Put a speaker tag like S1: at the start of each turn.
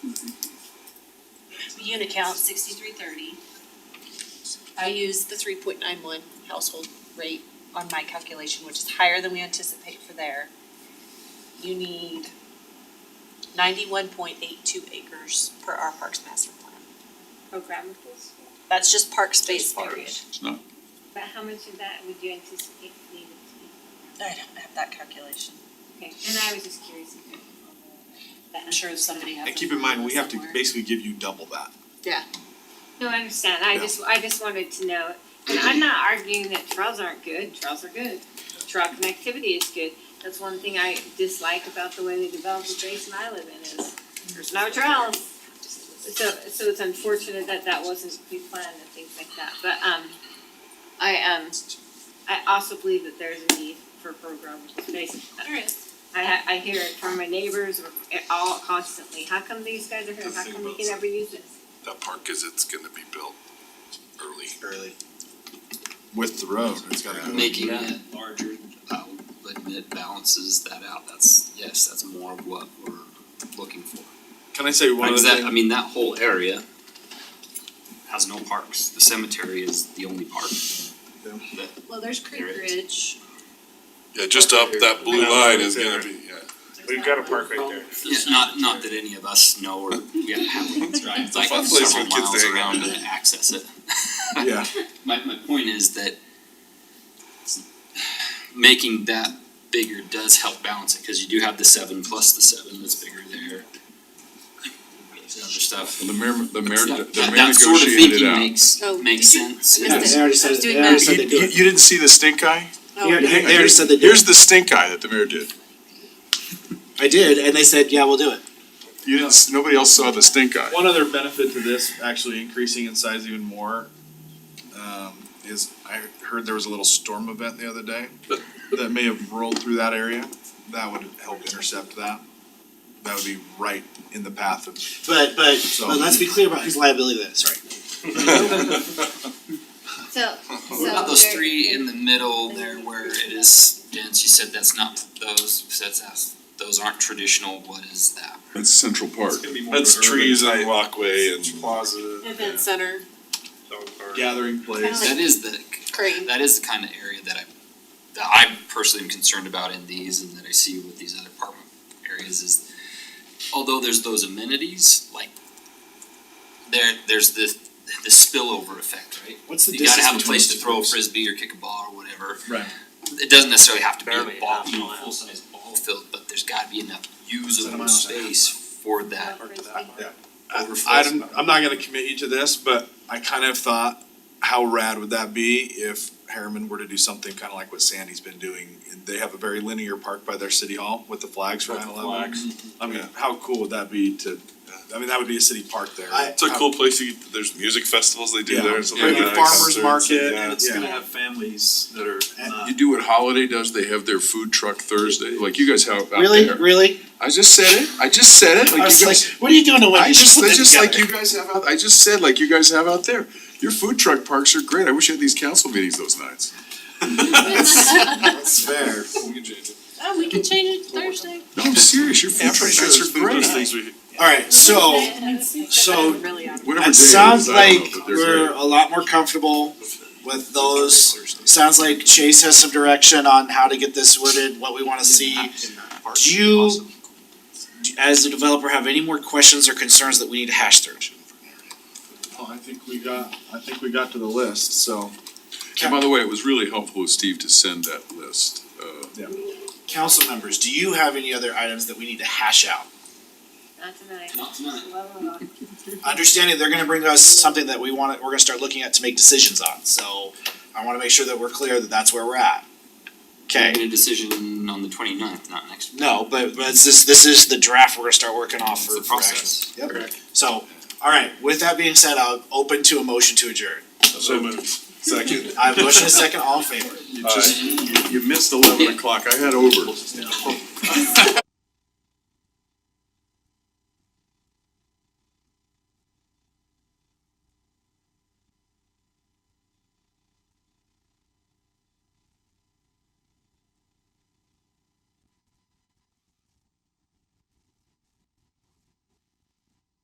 S1: The unit count, sixty-three thirty. I used the three point nine one household rate on my calculation, which is higher than we anticipate for there. You need ninety-one point eight two acres per our parks master plan.
S2: Programmables.
S1: That's just park space
S3: parks.
S1: period.
S3: It's not,
S2: But how much of that would you anticipate needed to
S1: I don't have that calculation.
S2: be? Okay, and I was just curious. if it- that-
S1: I'm sure somebody has.
S4: And keep in mind, we have to
S1: somewhere.
S4: basically give you double that.
S2: No, I understand, I
S4: Yeah.
S2: just, I just wanted to know, and I'm not arguing that trails aren't good, trails are good. Trail connectivity is good, that's one thing I dislike about the way they developed the basin I live in is there's no trails. So, so it's unfortunate that that wasn't pre-planned and things like that, but, um, I, um, I also believe that there's a need for programmable space.
S1: There is.
S2: I ha- I hear it from my neighbors or- all constantly, how come these guys are here, how come we can never use this?
S5: That park is, it's gonna be built early.
S6: Early.
S4: With the road, it's gotta go.
S6: Making it larger, I would admit balances that out, that's, yes, that's more of what we're looking for.
S4: Can I say one
S6: Like,
S4: other
S6: 'cause that-
S4: thing?
S6: I mean, that whole area has no parks, the cemetery is the only park.
S1: Well, there's Creek
S6: There is.
S1: Ridge.
S5: Yeah, just up that blue line is gonna be, yeah.
S7: We've got a park right there.
S6: Yeah, not, not that any of us know or, yeah, have ones, right, it's like
S5: fun place
S6: several
S5: for kids to
S6: miles
S5: hang out.
S6: around to access it.
S4: Yeah,
S6: My, my point is that s- making that bigger does help balance it, cause you do have the seven plus the seven that's bigger there. There's other stuff.
S5: The mayor, the mayor,
S6: That-
S5: the
S6: that-
S5: mayor
S6: that sort of
S5: negotiated it
S6: thinking
S5: out.
S6: makes,
S1: Oh,
S6: makes
S1: did you-
S6: sense.
S1: I missed it.
S8: they already
S1: I was
S8: said-
S1: doing
S8: they already
S1: math.
S8: said-
S4: you, you- you didn't see the stink eye?
S1: Oh.
S8: Yeah,
S4: Hang on,
S8: they already said they did.
S4: Here's the stink eye that the mayor did.
S8: I did, and they said, yeah, we'll do it.
S4: You didn't, s- nobody else saw the stink eye.
S9: One other benefit to this actually increasing in size even more um, is I heard there was a little storm event the other day that may have rolled through that area. That would help intercept that. That would be right in the path of.
S8: But, but,
S9: So-
S8: but let's be clear about whose liability that is, right?
S2: So,
S6: What about those three in the middle there where it is dense, you said that's not those, that's, that's- those aren't traditional, what is that?
S5: That's Central Park.
S4: That's trees and
S5: walkway
S1: Event Center,
S9: Gathering place.
S6: That is the,
S1: Crane.
S6: that is the kind of area that I, that I personally am concerned about in these and that I see with these other apartment areas is, although there's those amenities, like, there, there's this, this spillover effect, right?
S8: What's the
S6: You gotta
S8: distance
S6: have a
S8: between
S6: place
S8: those
S6: to
S8: two
S6: throw a
S8: groups?
S6: frisbee or kick a ball or whatever.
S9: Right.
S6: It doesn't necessarily have to be
S7: Barely
S6: a ball,
S7: half
S6: you know,
S7: mile.
S6: full size ball field, but there's gotta be enough
S9: Seven
S6: usable
S9: miles and a half.
S6: space for that.
S9: I-
S6: Overflows.
S9: I'm, I'm not gonna commit you to this, but I kind of thought, how rad would that be if Harriman were to do something kind of like what Sandy's been doing? They have a very linear park by their city hall with the flags for
S5: With
S9: nine
S5: the
S9: eleven. I mean, how cool would that be to, I mean, that would be a city park there.
S8: I-
S5: It's a cool place, you, there's music festivals they do
S9: Yeah.
S5: there. and stuff
S9: Bring
S5: like
S9: the
S5: that,
S9: farmer's
S5: concerts,
S9: market
S5: yeah.
S9: and it's gonna
S8: Yeah.
S9: have families that are not.
S5: You do what Holiday does, they have their food truck Thursday, like you guys have out there.
S8: Really, really?
S5: I just said it, I just said it,
S8: I
S5: like
S8: was
S5: you
S8: like,
S5: guys.
S8: what are you doing to
S5: I
S8: Wednesday?
S5: just, that's just like you guys have out, I just said like you guys have out there. Your food truck parks are great, I wish I had these council meetings those nights.
S8: That's fair.
S1: Oh, we can change it Thursday.
S5: No, I'm serious, your food truck nights are great.
S8: Alright, so, so
S1: Really on.
S5: Whatever day
S8: it
S5: it is,
S8: sounds
S5: I don't know,
S8: like
S5: but they're great.
S8: we're a lot more comfortable with those. Sounds like Chase has some direction on how to get this wooded, what we wanna see. Do you, as a developer, have any more questions or concerns that we need to hash through?
S9: Oh, I think we got, I think we got to the list, so.
S5: And by the way, it was really helpful of Steve to send that list, uh,
S8: Council members, do you have any other items that we need to hash out?
S2: Not tonight.
S6: Not tonight.
S8: Understanding they're gonna bring us something that we wanna, we're gonna start looking at to make decisions on, so I wanna make sure that we're clear that that's where we're at. Okay.
S6: Making a decision on the twenty ninth, not next week.
S8: No, but but it's this this is the draft we're gonna start working
S6: It's
S8: off for
S6: the
S8: for action.
S6: process.
S8: Yep. So, alright, with that being said, I'll open to a motion to adjourn.
S4: So moved. Second.
S8: I have a motion and a second, all in favor?
S4: You missed eleven o'clock, I had over.